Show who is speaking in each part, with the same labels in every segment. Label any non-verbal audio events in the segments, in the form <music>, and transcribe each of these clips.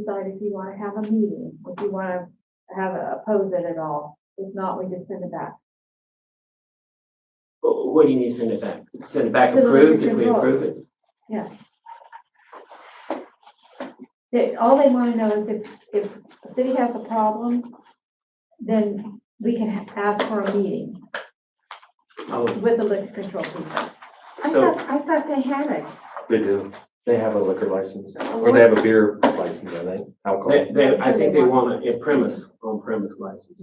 Speaker 1: decide if you wanna have a meeting, if you wanna have, a oppose it at all. If not, we just send it back.
Speaker 2: Wh- What do you mean send it back? Send it back
Speaker 1: To the
Speaker 2: approved
Speaker 1: liquor
Speaker 2: if we
Speaker 1: control.
Speaker 2: approve it?
Speaker 1: They, all they wanna know is if, if the city has a problem, then we can ha- ask for a meeting
Speaker 2: Oh,
Speaker 1: with the liquor control people.
Speaker 3: I
Speaker 4: So-
Speaker 3: thought, I thought they had it.
Speaker 4: They do. They have a liquor license, or
Speaker 3: What-
Speaker 1: Uh-huh.
Speaker 4: they have a beer license, I think, alcohol.
Speaker 2: They, they, I think they want a a premise, on premise license.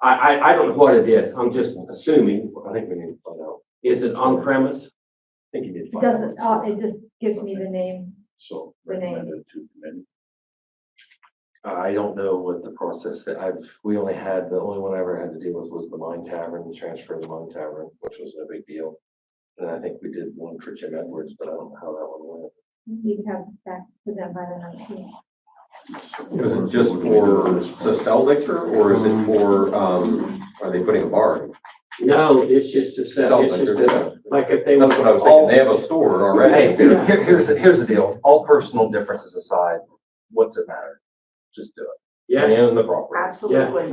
Speaker 2: I, I, I don't know what it is. I'm just assuming.
Speaker 4: I think we need to find out.
Speaker 2: Is it on premise?
Speaker 4: I think you need to
Speaker 1: It
Speaker 4: find out.
Speaker 1: doesn't, uh, it just gives me the name.
Speaker 5: So
Speaker 1: The name.
Speaker 5: recommended to committee.
Speaker 4: Uh, I don't know what the process, I've, we only had, the only one I ever had to deal with was the Mine Tavern, the transfer of the Mine Tavern, which was no big deal. And I think we did one for Jim Edwards, but I don't know how that one went.
Speaker 1: You can have it back to them by the nineteenth.
Speaker 6: Is it just for, to sell liquor, or is it for, um, are they putting a bar? in?
Speaker 2: No, it's just to sell, it's just
Speaker 6: liquor.
Speaker 2: a, like if they.
Speaker 6: That's what I was thinking, they have a store
Speaker 4: Hey,
Speaker 6: already.
Speaker 4: here- here- here's, the- here's the deal, all personal differences aside, what's it matter? Just do it.
Speaker 2: Yeah,
Speaker 4: And the property,
Speaker 3: Absolutely.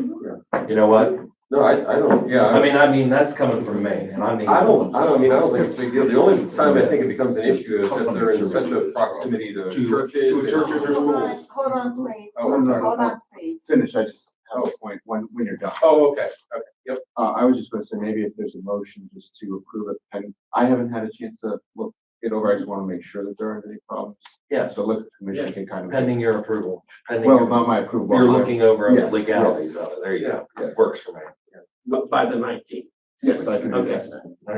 Speaker 4: you know what?
Speaker 6: No, I, I don't, yeah,
Speaker 4: I
Speaker 6: I
Speaker 4: mean, I mean, that's coming from me, and I mean.
Speaker 6: I don't, I don't, I mean, I don't think it's a big deal, the only time I think it becomes an issue is if they're in such a proximity to
Speaker 4: To-
Speaker 6: churches.
Speaker 4: to
Speaker 6: and-
Speaker 4: churches or
Speaker 3: Hold on, hold on, please.
Speaker 6: Oh, I'm sorry.
Speaker 3: Hold on, please.
Speaker 7: finish, I just have a point when, when you're done.
Speaker 6: Oh, okay, okay,
Speaker 7: Uh, I was just gonna say, maybe if there's a motion just to approve it, and I haven't had a chance to look it over, I just wanna make sure that there aren't any problems.
Speaker 4: Yeah.
Speaker 7: So look, commission can kind of,
Speaker 4: Pending your approval, pending,
Speaker 7: well,
Speaker 4: your-
Speaker 7: not my approval.
Speaker 4: you're
Speaker 7: my-
Speaker 4: looking over the
Speaker 7: Yes,
Speaker 4: legalities of it, there you go,
Speaker 6: yeah.
Speaker 4: works for me.
Speaker 2: but by the nineteenth.
Speaker 7: Yes, I can.
Speaker 2: Okay.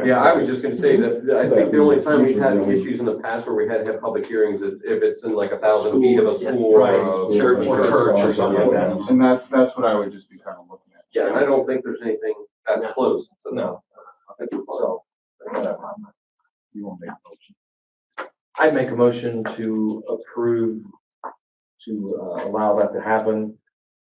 Speaker 6: Yeah, I was just gonna say that, that I think the only time we've had issues in the past where we had to have public hearings, is if it's in like a thousand feet of a school or
Speaker 4: Right.
Speaker 6: a
Speaker 4: Church,
Speaker 6: church
Speaker 4: or church or something like that.
Speaker 7: And that, that's what I would just be kind of looking at.
Speaker 6: Yeah, and I don't think there's anything that close to that.
Speaker 4: No,
Speaker 6: So,
Speaker 7: You won't make a motion.
Speaker 4: I'd make a motion to approve, to uh, allow that to happen.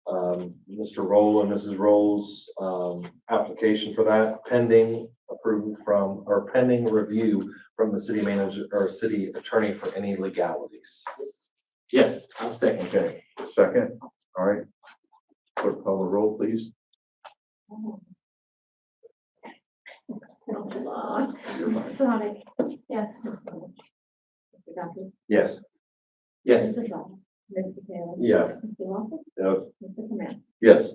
Speaker 4: Um, Mr. Roll and Mrs. Roll's, um, application for that pending approval from, or pending review from the city manager or city attorney for any legalities.
Speaker 2: Yes, I'll second.
Speaker 4: Okay,
Speaker 5: Second, all right. Clerk, call the roll, please.
Speaker 1: Sonic. Yes. Mr. Duffy.
Speaker 4: yes.
Speaker 2: Yes,
Speaker 1: Mr. Shaw. Mr. Taylor.
Speaker 5: Yeah.
Speaker 1: Mr. Lawson.
Speaker 5: Yes.
Speaker 1: Mr. Command.
Speaker 5: Yes.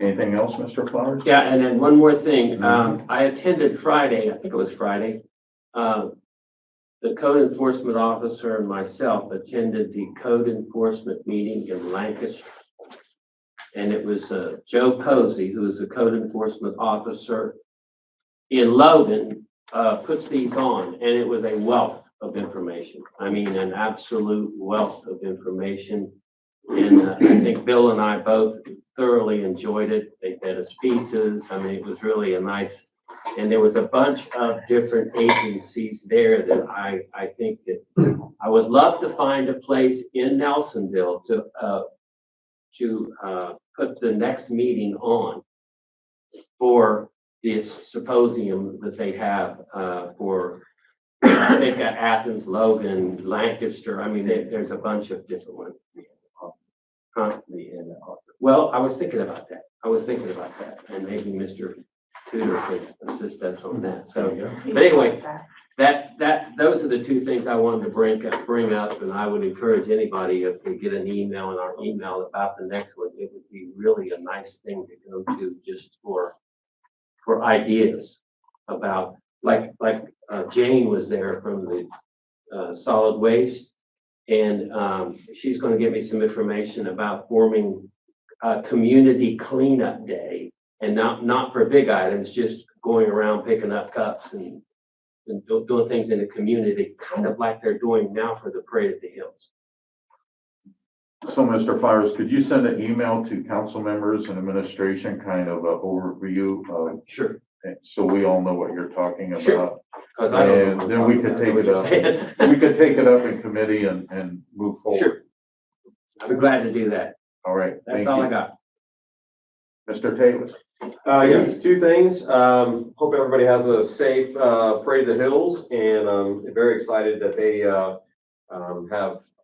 Speaker 5: Anything else, Mr. Flowers?
Speaker 2: yeah, and then one more thing. Um, I attended Friday, I think it was Friday. Uh, the code enforcement officer and myself attended the code enforcement meeting in Lancaster. And it was uh, Joe Posey, who is the code enforcement officer in Logan, uh, puts these on, and it was a wealth of information. I mean, an absolute wealth of information. And uh, I think Bill and I both thoroughly enjoyed it. They fed us pizzas. I mean, it was really a nice, and there was a bunch of different agencies there that I, I think that I would love to find a place in Nelsonville to, uh, to, uh, put the next meeting on for this symposium that they have, uh, for, they've got Athens, Logan, Lancaster. I mean, there, there's a bunch of different ones. Huh? Well, I was thinking about that. I was thinking about that, and maybe Mr. Tudor could assist us on that. So But anyway, that, that, those are the two things I wanted to bring up, bring up, and I would encourage anybody, if we get an email in our email about the next one, it would be really a nice thing to go to just for, for ideas about, like, like uh, Jane was there from the uh, solid waste. And um, she's gonna give me some information about forming a community cleanup day. And not, not for big items, just going around picking up cups and and do- doing things in the community, kind of like they're doing now for the Parade of the Hills.
Speaker 5: So, Mr. Flowers, could you send an email to council members and administration, kind of a overview of,
Speaker 2: Sure.
Speaker 5: so we all know what you're talking
Speaker 2: Sure.
Speaker 5: about?
Speaker 2: Cause I don't know.
Speaker 5: And then we could
Speaker 2: That's what
Speaker 5: take it up.
Speaker 2: you're saying.
Speaker 5: We could take it up in committee and, and move forward.
Speaker 2: <laughs> Sure. I'd be glad to do that.
Speaker 5: All right, thank
Speaker 2: That's all I
Speaker 5: you.
Speaker 2: got.
Speaker 5: Mr. Taylor?
Speaker 4: Uh,
Speaker 6: yes, two things. Um, hope um, everybody has a safe, uh, Parade of the Hills and I'm very excited that they, uh, um, have